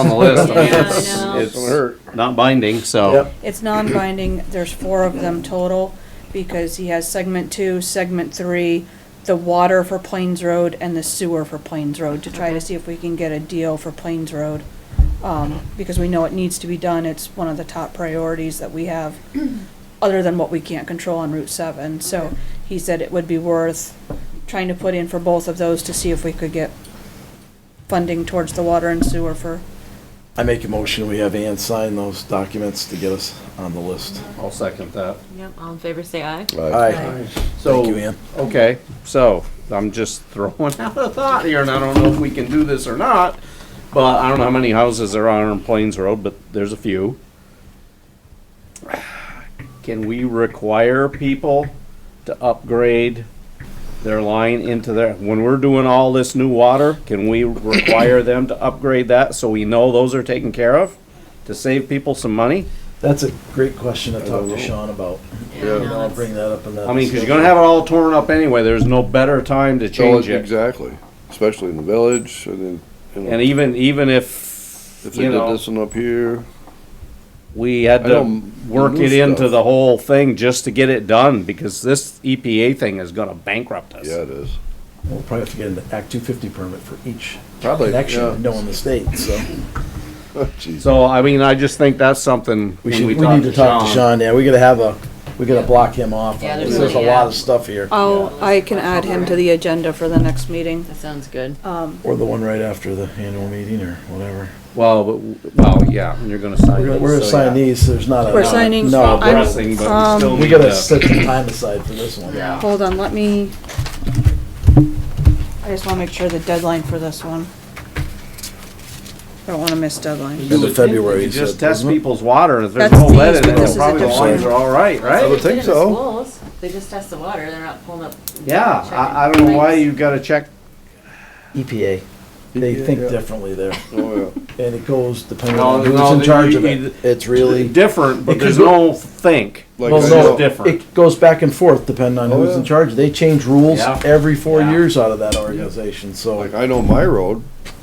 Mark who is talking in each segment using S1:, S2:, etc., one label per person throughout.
S1: on the list. I mean,
S2: Yeah, I
S1: it's-
S2: know.
S1: It's not binding, so.
S3: Yep.
S2: It's non-binding, there's four of them total, because he has segment two, segment three, the water for Plains Road, and the sewer for Plains Road, to try to see if we can get a deal for Plains Road. Um, because we know it needs to be done, it's one of the top priorities that we have, other than what we can't control on Route seven, so he said it would be worth trying to put in for both of those to see if we could get funding towards the water and sewer for
S3: I make a motion, we have Ann sign those documents to get us on the list.
S1: I'll second that.
S4: Yep, all in favor, say aye.
S3: Aye.
S1: So,
S3: you, Ann.
S1: okay, so I'm just throwing out a thought here and I don't know if we can do this or not. But I don't know how many houses there are on Plains Road, but there's a few. Can we require people to upgrade their line into their, when we're doing all this new water, can we require them to upgrade that so we know those are taken care of? To save people some money?
S3: That's a great question to talk to Sean about. And I'll bring that up in that.
S1: I mean, because you're gonna have it all torn up anyway. There's no better time to
S5: So,
S1: change it.
S5: Exactly, especially in the village, and then, you
S1: And
S5: know,
S1: even even if,
S5: if they
S1: you
S5: did
S1: know
S5: this one up here,
S1: we had
S5: I
S1: to
S5: know
S1: work
S5: new
S1: it into
S5: stuff.
S1: the whole thing just to get it done because this EPA thing is gonna bankrupt us.
S5: yeah, it is.
S3: We'll probably have to get an Act two fifty permit for each
S5: Probably, yeah.
S3: connection, knowing the state, so.
S5: Oh, Jeez.
S1: So I mean, I just think that's something when
S3: We should, we need to talk to Sean, yeah, we gotta have a, we gotta block him off.
S4: Yeah,
S3: on
S4: there's
S3: this. There's a
S4: really,
S3: lot
S4: yeah.
S3: of stuff here,
S2: Oh, I can add him to the agenda for the next meeting.
S4: That sounds good.
S3: or the one right after the annual meeting or whatever.
S1: Well, but, well, yeah, and you're gonna sign.
S3: We're gonna-
S1: it,
S3: we're gonna
S1: so,
S3: sign
S1: yeah.
S3: these, there's not a.
S2: We're signing-
S3: No,
S1: Not
S2: I'm-
S1: pressing, but we
S2: um,
S1: still
S3: we
S1: need
S3: gotta
S1: to-
S3: set some time aside for this one.
S4: Yeah.
S2: Hold on, let me, I just wanna make sure the deadline for this one. Don't wanna miss deadline.
S3: End of February,
S1: You
S3: he
S1: just
S3: said,
S1: test
S3: wasn't it?
S1: people's water, and if there's
S2: That's
S1: no lead
S2: these,
S1: in
S2: but
S1: it,
S2: this
S1: then
S2: is a
S1: probably the
S3: different-
S1: lines are all right, right?
S5: I would think so.
S4: They just test the water, they're not pulling up.
S1: Yeah, I, I don't know why you gotta check.
S3: EPA. E
S6: E
S3: They
S5: EPA,
S3: think
S5: yeah.
S3: differently there,
S5: Oh, yeah.
S3: and it goes depending
S1: No,
S3: on who's
S1: no,
S3: in
S1: you-
S3: charge of
S1: you-
S3: it. It's really.
S1: Different,
S3: It
S1: but
S3: could
S1: there's
S3: go-
S1: no think.
S5: Like
S3: Well,
S5: I
S1: no.
S5: know-
S1: different.
S3: It goes back and forth depending on
S5: Oh,
S3: who's in
S5: yeah.
S3: charge. They change rules
S1: Yeah.
S3: every four
S1: Yeah.
S3: years out of that organization, so.
S5: Like, I know my road,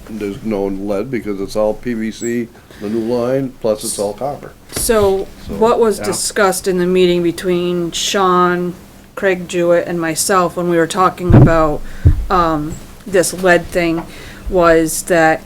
S5: there's no lead because it's all PVC, the new line, plus it's all copper.
S2: So what was
S1: Yeah.
S2: discussed in the meeting between Sean, Craig Jewett, and myself when we were talking about, um, this lead thing was that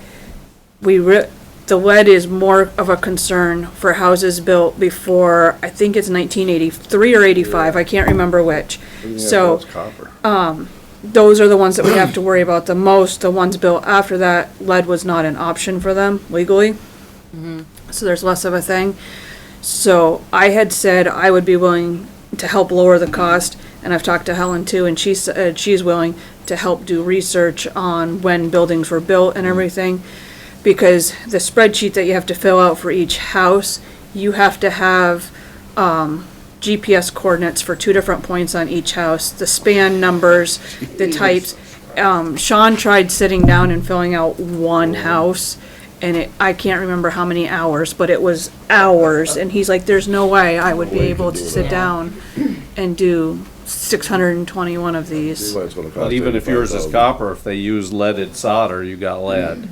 S2: we re- the lead is more of a concern for houses built before, I think it's nineteen eighty-three or eighty-five, I can't remember which.
S5: Yeah,
S2: So uh,
S5: It's copper.
S2: those are the ones that we have to worry about the most. The ones built after that, lead was not an option for them legally. So there's less of a thing. So I had said I would be willing to help lower the cost, and I've talked to Helen too, and she said she's willing to help do research on when buildings were built and everything. Because the spreadsheet that you have to fill out for each house, you have to have um, GPS coordinates for two different points on each house, the span numbers, the types. Um, Sean tried sitting down and filling out one house, and it, I can't remember how many hours, but it was hours, and he's like, there's no way I would be
S5: way you
S2: able
S5: could
S2: to
S5: do
S2: sit
S4: that.
S2: down and do six hundred and twenty-one of
S5: See
S2: these.
S5: why it's gonna cost
S1: But even if yours is
S5: $85,000.
S1: copper, if they use leaded solder, you got lead.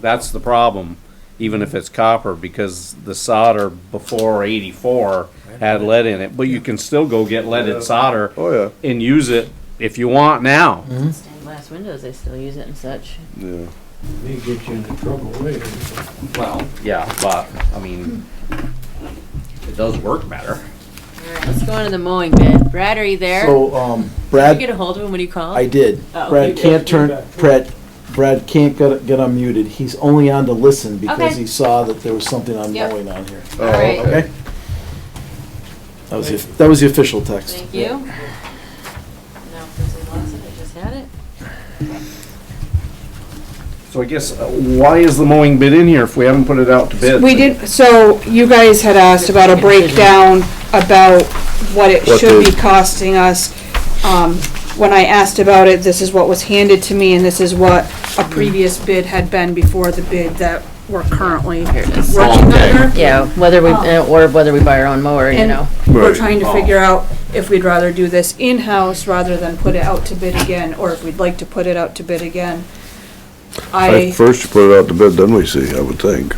S1: That's the problem, even if it's copper, because the solder before eighty-four had lead in it, but you can still go get leaded solder
S5: Oh, yeah,
S1: and use it if you want now.
S4: Stained glass windows, they still use it and such.
S5: yeah.
S6: They get you into trouble later.
S1: Well, yeah, but, I mean, it does work better.
S4: Alright, let's go on to the mowing bid. Brad, are you there? Did
S3: So, um,
S4: you get
S3: Brad,
S4: a hold of him? What do you call
S3: I
S4: him?
S3: did.
S4: Oh,
S3: Brad
S4: you
S3: can't
S4: did.
S3: turn, Brad, Brad can't get, get unmuted. He's only on to listen because
S4: Okay.
S3: he saw that there was something on
S4: Yep.
S3: mowing on here.
S5: Oh,
S4: Alright.
S5: okay.
S3: Okay? That was, the- that was the official text.
S4: Thank you. Now, if there's a loss, I just had it.
S1: So I guess, uh, why is the mowing bid in here if we haven't put it out to bid?
S2: We did, so you guys had asked about a breakdown about what it
S5: What
S2: should be
S5: the-
S2: costing us. Um, when I asked about it, this is what was handed to me and this is what a previous bid had been before the bid that we're currently
S4: Here it is.
S2: working
S1: Okay.
S2: under.
S4: Yeah, whether we, uh, or whether we buy our own mower, you
S2: And-
S4: know.
S2: We're trying to figure out if we'd rather do this in-house rather than put it out to bid again, or if we'd like to put it out to bid again. I.
S5: First you put it out to bid, then we see, I would think.